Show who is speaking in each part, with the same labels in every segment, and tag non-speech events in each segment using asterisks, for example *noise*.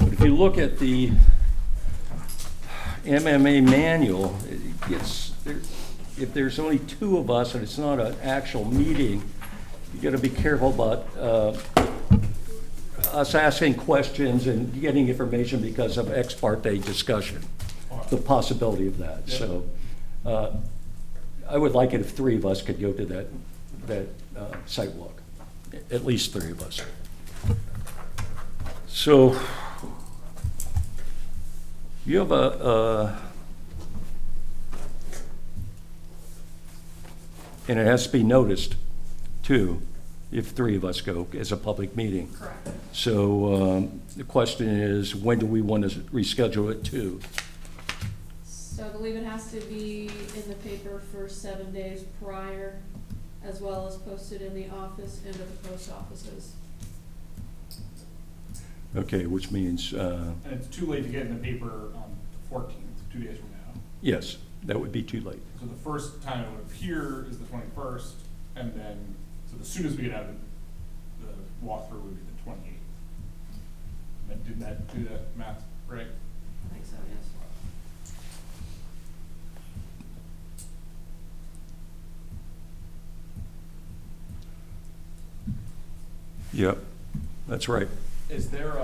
Speaker 1: if you look at the MMA manual, it gets, there- if there's only two of us and it's not an actual meeting, you gotta be careful about uh, us asking questions and getting information because of ex parte discussion, the possibility of that, so. uh, I would like it if three of us could go to that, that uh, site walk, at least three of us. So, you have a, uh, and it has to be noticed, too, if three of us go, as a public meeting.
Speaker 2: Correct.
Speaker 1: So, um, the question is, when do we want to reschedule it to?
Speaker 2: So I believe it has to be in the paper for seven days prior, as well as posted in the office and at the post offices.
Speaker 1: Okay, which means, uh,
Speaker 3: And it's too late to get in the paper on the fourteenth, two days from now.
Speaker 1: yes, that would be too late.
Speaker 3: So the first time it would appear is the twenty-first, and then, so the soonest we could have the the walkthrough would be the twenty-eighth. Did that, do that math right?
Speaker 2: I think so, yes.
Speaker 1: Yep, that's right.
Speaker 3: Is there a,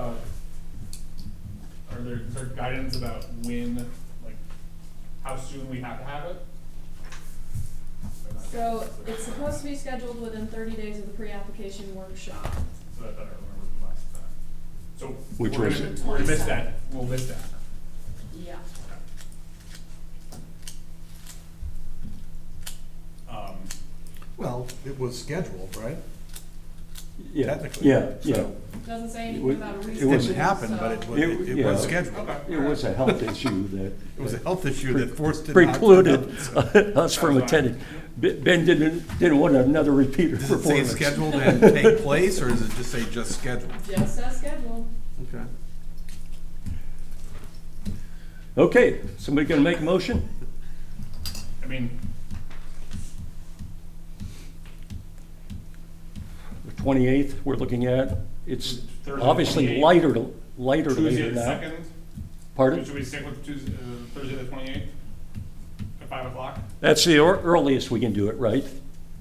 Speaker 3: are there, is there guidance about when, like, how soon we have to have it?
Speaker 2: So it's supposed to be scheduled within thirty days of the pre-application workshop.
Speaker 3: So I thought I remembered from last time. So we're
Speaker 1: Which was-
Speaker 3: gonna, we're gonna miss that, we'll miss that.
Speaker 2: Yeah.
Speaker 3: Um,
Speaker 4: Well, it was scheduled, right?
Speaker 1: Yeah,
Speaker 4: Technically,
Speaker 1: Yeah, yeah.
Speaker 4: so-
Speaker 2: Doesn't say
Speaker 1: It
Speaker 2: anything
Speaker 1: was-
Speaker 2: about a
Speaker 1: it
Speaker 2: reason.
Speaker 4: It didn't happen, but it
Speaker 2: so-
Speaker 4: was, it it was scheduled.
Speaker 3: okay.
Speaker 1: It was a health issue that.
Speaker 4: *laughs* It was a health issue that forced it. not to
Speaker 1: Precluded
Speaker 4: happen, so-
Speaker 1: *laughs* us from
Speaker 3: That's fine.
Speaker 1: attending. Ben ben didn't, didn't want another repeater
Speaker 4: Does it say
Speaker 1: performance.
Speaker 4: scheduled
Speaker 1: *laughs*
Speaker 4: and take place, or does it just say just scheduled?
Speaker 2: Just as scheduled.
Speaker 4: Okay.
Speaker 1: Okay, somebody gonna make a motion?
Speaker 3: I mean,
Speaker 1: The twenty-eighth, we're looking at, it's
Speaker 3: Thursday,
Speaker 1: obviously
Speaker 3: 28th.
Speaker 1: lighter, lighter
Speaker 3: Tuesday
Speaker 1: later
Speaker 3: the
Speaker 1: now.
Speaker 3: second,
Speaker 1: Pardon?
Speaker 3: should we stick with Tuesday, uh, Thursday the twenty-eighth? At five o'clock?
Speaker 1: That's the ear- earliest we can do it, right?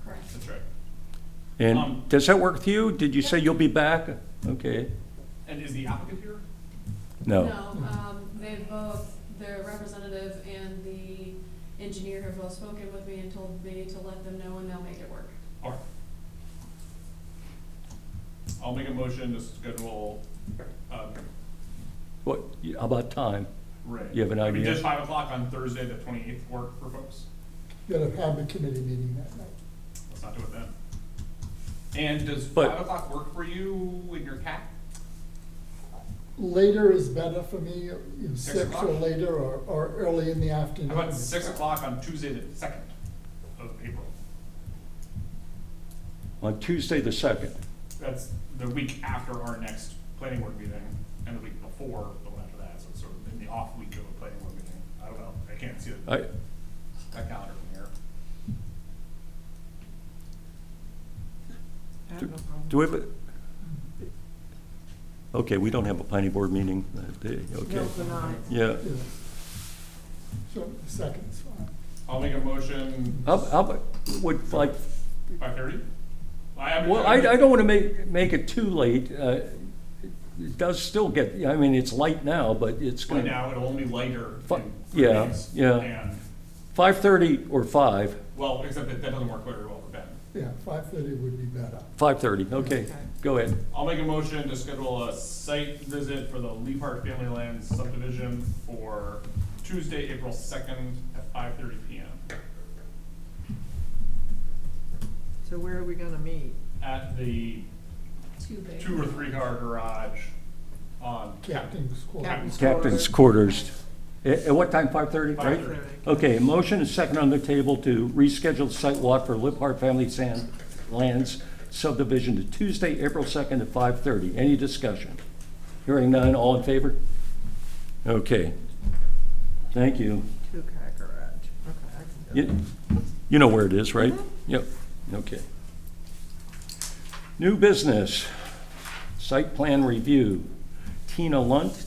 Speaker 2: Correct.
Speaker 3: That's right. Um,
Speaker 1: And does that work with you? Did you say you'll be back? Okay,
Speaker 3: And is the applicant here?
Speaker 1: no.
Speaker 2: um, they both, their representative and the engineer have both spoken with me and told me to let them know and they'll make it work.
Speaker 3: All right. I'll make a motion to schedule, um,
Speaker 1: What, how about time?
Speaker 3: Ray.
Speaker 1: You have an
Speaker 3: I mean,
Speaker 1: idea?
Speaker 3: does five o'clock on Thursday the twenty-eighth work for folks?
Speaker 5: Gotta have the committee meeting that night.
Speaker 3: Let's not do it then. And does
Speaker 1: But-
Speaker 3: five o'clock work for you and your cat?
Speaker 5: Later is better for me, you know,
Speaker 3: Six
Speaker 5: six or
Speaker 3: o'clock?
Speaker 5: later or, or early in the afternoon.
Speaker 3: How about six o'clock on Tuesday the second of April?
Speaker 1: On Tuesday the second.
Speaker 3: That's the week after our next planning board meeting, and the week before the one after that, so it's sort of in the off week of a planning board meeting. I don't know, I can't see the-
Speaker 1: I,
Speaker 3: that calendar from here.
Speaker 1: do- do we have a? Okay, we don't have a planning board meeting that day, okay. Yeah.
Speaker 5: Yeah. So, the second's fine.
Speaker 3: I'll make a motion
Speaker 1: How, how, about- would like,
Speaker 3: by thirty? I,
Speaker 1: well, I, I don't want to make, make it too late. uh, It does still get, I mean, it's light now, but it's
Speaker 3: Right
Speaker 1: going,
Speaker 3: now, it'll only later
Speaker 1: Fu-
Speaker 3: in three
Speaker 1: yeah,
Speaker 3: days,
Speaker 1: yeah.
Speaker 3: And,
Speaker 1: five-thirty or five,
Speaker 3: well, except that that doesn't work very well for Ben.
Speaker 5: Yeah, five thirty would be better.
Speaker 1: five-thirty, okay, go ahead.
Speaker 3: I'll make a motion to schedule a site visit for the Lee Park Family Lands subdivision for Tuesday, April second at five thirty P M.
Speaker 6: So where are we gonna meet?
Speaker 3: At the
Speaker 2: Too big.
Speaker 3: two or three car garage on Captain.
Speaker 5: Captain's quarters.
Speaker 6: Captain's
Speaker 1: Captain's quarters. At, at what time, five-thirty, right?
Speaker 3: 5:30.
Speaker 1: Okay, motion is second on the table to reschedule the site walk for Liphart Family Sand Lands subdivision to Tuesday, April second at five-thirty. Any discussion? Hearing none, all in favor? Okay. Thank you.
Speaker 6: Two car garage, okay, I can go.
Speaker 1: You you know where it is, right? Yep, okay. New business, site plan review. Tina Lunt,